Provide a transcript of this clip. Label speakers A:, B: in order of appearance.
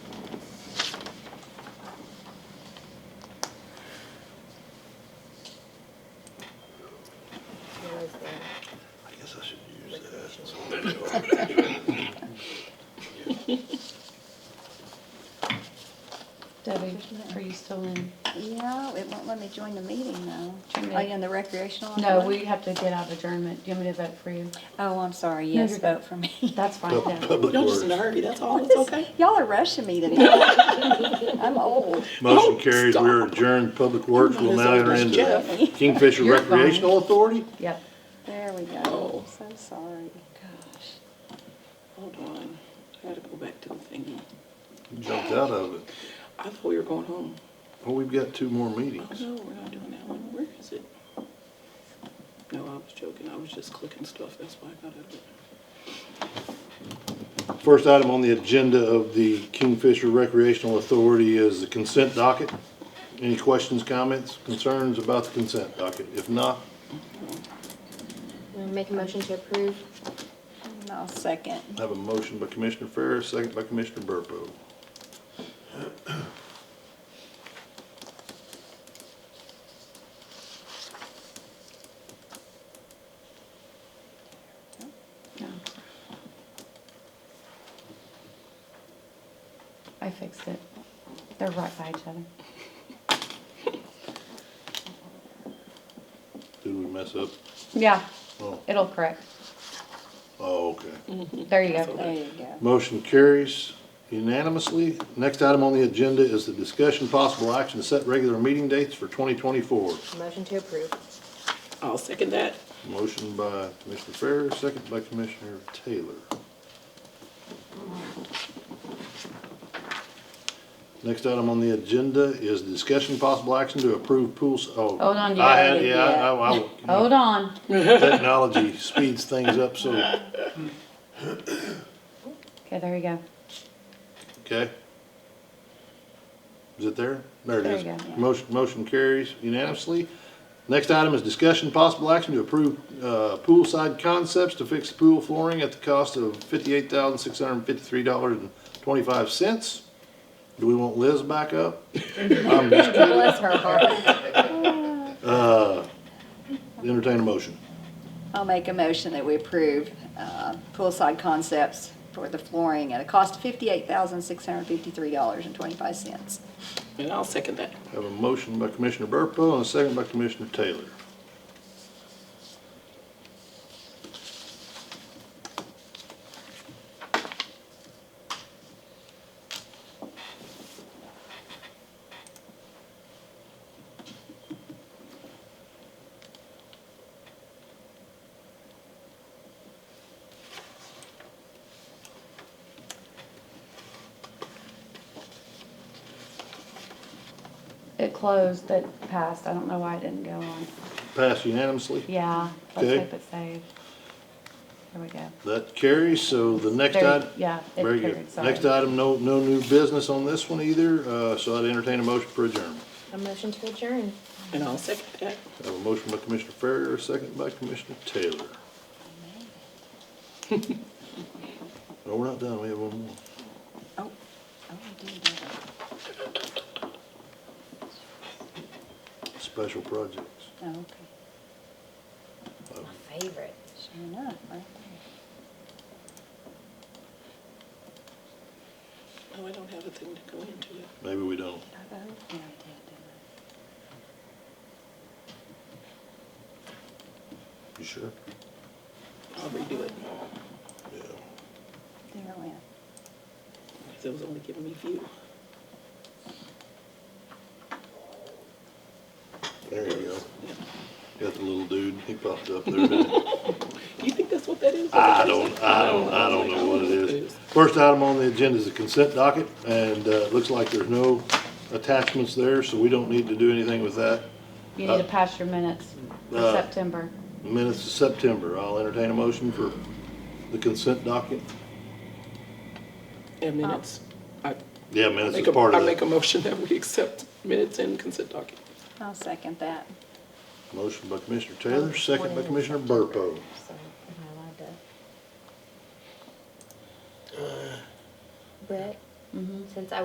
A: Debbie, are you still in?
B: Yeah, it won't let me join the meeting though.
A: Join the-
B: Are you Oh, in the recreational?
A: No,
B: one?
A: we have to get out of adjournment. Do you want me to vote for you?
B: Oh, I'm sorry,
A: No,
B: yes,
A: you're-
B: vote for me.
A: That's fine,
C: Pub-
A: yeah.
C: Public
D: Y'all just in a
C: Works.
D: hurry, that's all, it's okay.
B: Y'all are rushing me today. I'm old.
C: Motion
D: Oh,
C: carries, we are
D: stop.
C: adjourned, Public Works will
D: As
C: now
D: old
C: enter
D: as
C: into
D: Jeff.
C: Kingfisher
A: You're fine.
C: Recreational Authority?
A: Yep.
B: There we go. So sorry. Oh. Gosh.
D: Hold on, I gotta go back to the thingy.
C: Jumped out of it.
D: I thought we were going home. Oh,
C: Well, we've got two more meetings.
D: No, we're not doing that one, where is it? No, I was joking, I was just clicking stuff, that's why I got out of it.
C: First item on the agenda of the Kingfisher Recreational Authority is the consent docket. Any questions, comments, concerns about the consent docket? If not,
E: I'll Make a motion to approve.
B: And I'll second.
C: I have a motion by Commissioner Ferris, second by Commissioner Burpo.
A: No. I fixed it. They're right by each other.
C: Did we mess up?
A: Yeah,
C: Oh,
A: it'll correct.
C: oh, okay.
A: There you go.
B: There you go.
C: Motion carries unanimously. Next item on the agenda is the discussion, possible action to set regular meeting dates for 2024.
E: Motion to approve.
D: I'll second that.
C: Motion by Commissioner Ferris, second by Commissioner Taylor. Next item on the agenda is discussion possible action to approve pools, oh.
A: Hold on, you
C: I
A: gotta
C: had,
A: get-
C: yeah, I, I-
A: Hold on.
C: I- technology speeds things up, so,
A: Okay, there you go.
C: okay. Is it there? There it
A: There
C: is.
A: you go.
C: Motion, motion carries unanimously. Next item is discussion possible action to approve, uh, poolside concepts to fix pool flooring at the cost of fifty-eight thousand, six hundred and fifty-three dollars and twenty-five cents. Do we want Liz back up? I'm just kidding.
E: Bless her heart.
C: Uh, entertain a motion.
B: I'll make a motion that we approve uh, poolside concepts for the flooring at a cost of fifty-eight thousand, six hundred and fifty-three dollars and twenty-five cents.
D: And I'll second that.
C: Have a motion by Commissioner Burpo and a second by Commissioner Taylor.
A: It closed, it passed. I don't know why it didn't go on.
C: Passed unanimously.
A: Yeah, let's
C: Okay.
A: hope it saved. There we go.
C: That carries, so the next
A: There-
C: item.
A: yeah, it
C: Very good.
A: carried, sorry.
C: Next item, no, no new business on this one either, uh, so I'd entertain a motion for adjournment.
E: A motion to adjourn.
D: And I'll second that.
C: I have a motion by Commissioner Ferrier, a second by Commissioner Taylor. No, we're not done, we have one more.
B: Oh, oh, I did that.
C: Special projects.
B: Oh, okay.
E: My favorite.
B: Sure enough, right there.
D: No, I don't have a thing to go into it.
C: Maybe we don't.
B: I voted, yeah, I did, didn't
C: You sure?
D: I'll redo it,
C: Yeah.
B: I? There it went.
D: because it was only giving me view.
C: There you go.
D: Yeah.
C: Got the little dude, he popped up there. didn't he?
D: You think that's what that is?
C: I don't, I don't, I don't know what it is. First item on the agenda is the consent docket, and uh, it looks like there's no attachments there, so we don't need to do anything with that.
A: You need to
C: Uh,
A: pass your minutes for
C: uh,
A: September.
C: Minutes of September, I'll entertain a motion for the consent docket.
D: And minutes. I
C: Yeah, minutes
D: make
C: is
D: a,
C: part
D: I
C: of
D: make a
C: that.
D: motion that we accept minutes and consent docket.
B: I'll second that.
C: Motion by Commissioner Taylor, second by Commissioner Burpo.
E: So, am I allowed to? Brett, since I